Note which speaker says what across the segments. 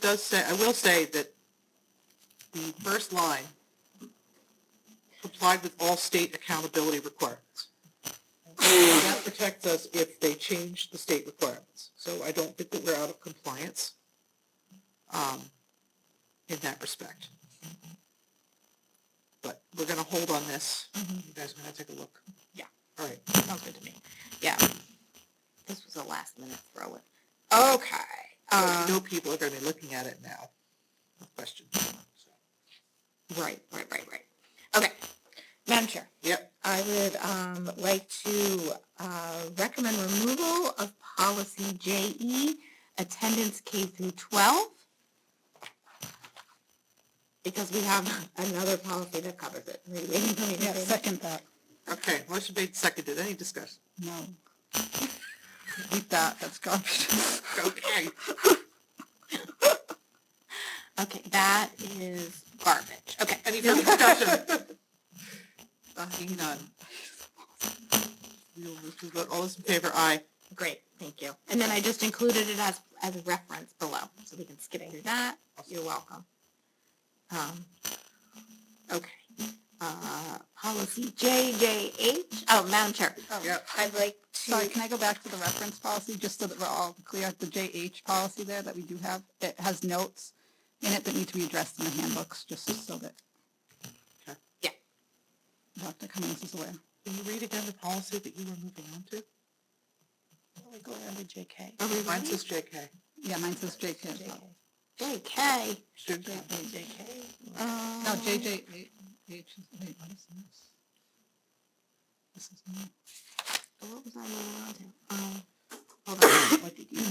Speaker 1: does say, I will say that the first line complied with all state accountability requirements. That protects us if they change the state requirements. So I don't think that we're out of compliance um, in that respect. But we're gonna hold on this. You guys are gonna take a look.
Speaker 2: Yeah.
Speaker 1: All right.
Speaker 2: Sounds good to me. Yeah. This was a last minute throw in. Okay.
Speaker 1: I
Speaker 2: Uh,
Speaker 1: know people are gonna be looking at it now. No question.
Speaker 2: right, right, right, right. Okay. Madam Chair,
Speaker 1: Yep,
Speaker 2: I would um, like to uh, recommend removal of policy JE, attendance K through 12, because we have another policy that covers it. Are you waiting for me to
Speaker 3: Yeah,
Speaker 2: say that?
Speaker 3: second that,
Speaker 1: okay, motion made, seconded, any discussion?
Speaker 3: no. Eat that, that's garbage.
Speaker 1: Okay,
Speaker 2: Okay, that is garbage. Okay.
Speaker 1: any further discussion? Seeing none. We will move to vote, all those in favor, aye.
Speaker 2: Great, thank you. And then I just included it as, as a reference below, so we can skip through that. You're welcome. Um, okay, uh, policy JJH, oh, Madam Chair.
Speaker 1: Yep.
Speaker 2: I'd like
Speaker 3: Sorry,
Speaker 2: to,
Speaker 3: can I go back to the reference policy, just so that we're all clear, the JH policy there that we do have, it has notes in it that need to be addressed in the handbooks, just so that.
Speaker 1: Okay.
Speaker 2: Yeah.
Speaker 3: Dr. Cummings is aware.
Speaker 1: Can you read again the policy that you were moving on to?
Speaker 3: We go under JK.
Speaker 2: Oh,
Speaker 1: Mine says JK.
Speaker 3: Yeah, mine says JK. as well.
Speaker 2: JK.
Speaker 1: Student
Speaker 3: JK.
Speaker 2: um,
Speaker 3: No, JJ, wait, wait, wait, what is this? This is new.
Speaker 2: Oh, What was I moving on to? Um, hold on, what did you?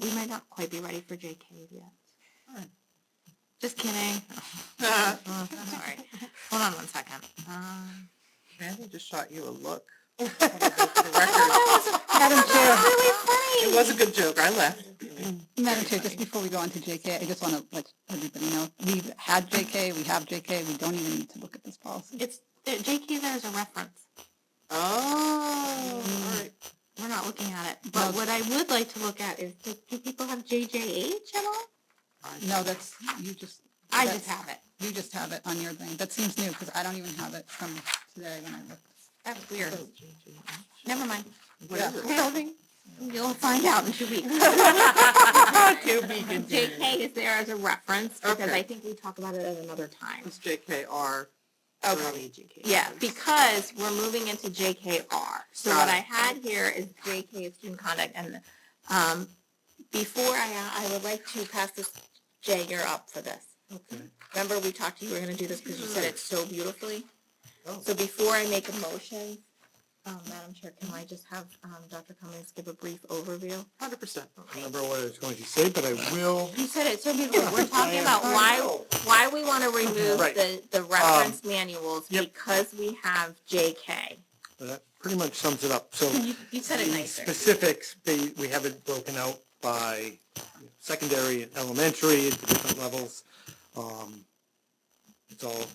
Speaker 2: We might not quite be ready for JK yet.
Speaker 1: Alright.
Speaker 2: Just kidding.
Speaker 1: committee.
Speaker 2: Uh, Sorry. Hold on one second. Um,
Speaker 1: Randy just shot you a look. For the record,
Speaker 2: Uh,
Speaker 3: Madam Chair.
Speaker 1: It was a good joke, I laughed.
Speaker 3: Madam Chair, just before we go on to JK, I just want to let everybody know, we've had JK, we have JK, we don't even need to look at this policy.
Speaker 2: It's, uh, there- JK there is a reference.
Speaker 1: Oh, all right.
Speaker 2: We're not looking at it. But
Speaker 3: No.
Speaker 2: what I would like to look at is, do do people have JJH at all?
Speaker 3: No, that's, you just,
Speaker 2: I
Speaker 3: That's-
Speaker 2: just have it.
Speaker 3: you just have it on your thing. That seems new because I don't even have it from today when I looked.
Speaker 2: That's weird. Never mind.
Speaker 1: What is it?
Speaker 2: You'll find out in two weeks.
Speaker 1: To be continued.
Speaker 2: JK is there as a reference because
Speaker 1: Okay.
Speaker 2: I think we talk about it at another time.
Speaker 1: It's JKR.
Speaker 2: Yeah, because we're moving into JKR. So
Speaker 1: Got
Speaker 2: what
Speaker 1: it.
Speaker 2: I had here is JK student conduct and, um, before I, I would like to pass this, Jay, you're up for this.
Speaker 1: Okay.
Speaker 2: Remember, we talked to you, we were gonna do this because you said it so beautifully.
Speaker 1: Oh.
Speaker 2: So before I make a motion, um, Madam Chair, can I just have, um, Dr. Cummings give a brief overview?
Speaker 1: Hundred percent.
Speaker 4: remember what I was going to say, but I will.
Speaker 2: You said it so beautifully. We're talking about why, why we want to remove
Speaker 4: Right.
Speaker 2: the, the reference manuals
Speaker 4: yep.
Speaker 2: because we have JK.
Speaker 4: That pretty much sums it up. So
Speaker 2: You, you said it
Speaker 4: the
Speaker 2: nicer.
Speaker 4: Specifics, they, we have it broken out by secondary and elementary into different levels. Um, It's all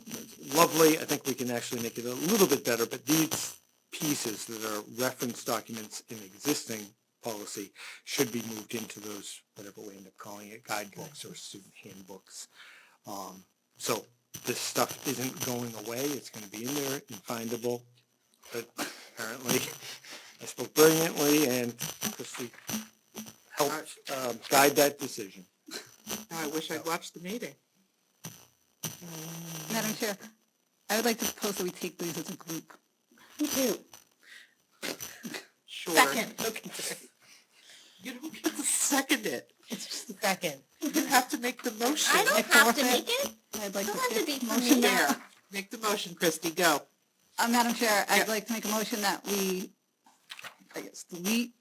Speaker 4: lovely. I think we can actually make it a little bit better, but these pieces that are reference documents in existing policy should be moved into those, whatever we end up calling it, guidebooks or student handbooks. Um, So this stuff isn't going away. It's going to be in there and findable, but apparently I spoke brilliantly and Christie helped uh, guide that decision.
Speaker 1: Now I wish I'd watched the meeting.
Speaker 3: Madam Chair, I would like to propose that we take these as a group.
Speaker 2: Me too.
Speaker 1: Sure.
Speaker 2: Second.
Speaker 1: Okay. You don't get to second it.
Speaker 2: It's just a second.
Speaker 1: You have to make the motion.
Speaker 2: I don't have to make it.
Speaker 3: I'd like
Speaker 2: You
Speaker 3: to.
Speaker 2: don't have to be
Speaker 3: motion
Speaker 2: from me.
Speaker 1: There. Make the motion, Christie, go.
Speaker 3: Uh, Madam Chair, I'd
Speaker 1: Yeah.
Speaker 3: like to make a motion that we, I guess, delete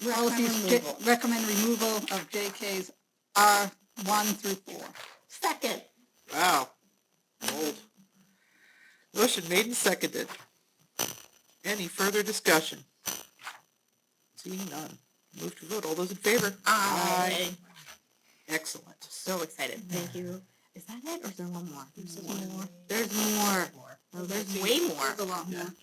Speaker 3: policies, J-
Speaker 2: removal.
Speaker 3: recommend removal of JKs R one through four.
Speaker 2: Second.
Speaker 1: Wow. Bold. Motion made and seconded. Any further discussion? Seeing none. Move to vote. All those in favor?
Speaker 2: I
Speaker 1: Excellent.
Speaker 2: Uh, so excited. Thank you. Is that it or is there one more? There's more. There's more. Oh, There's way more.
Speaker 3: There's a lot more.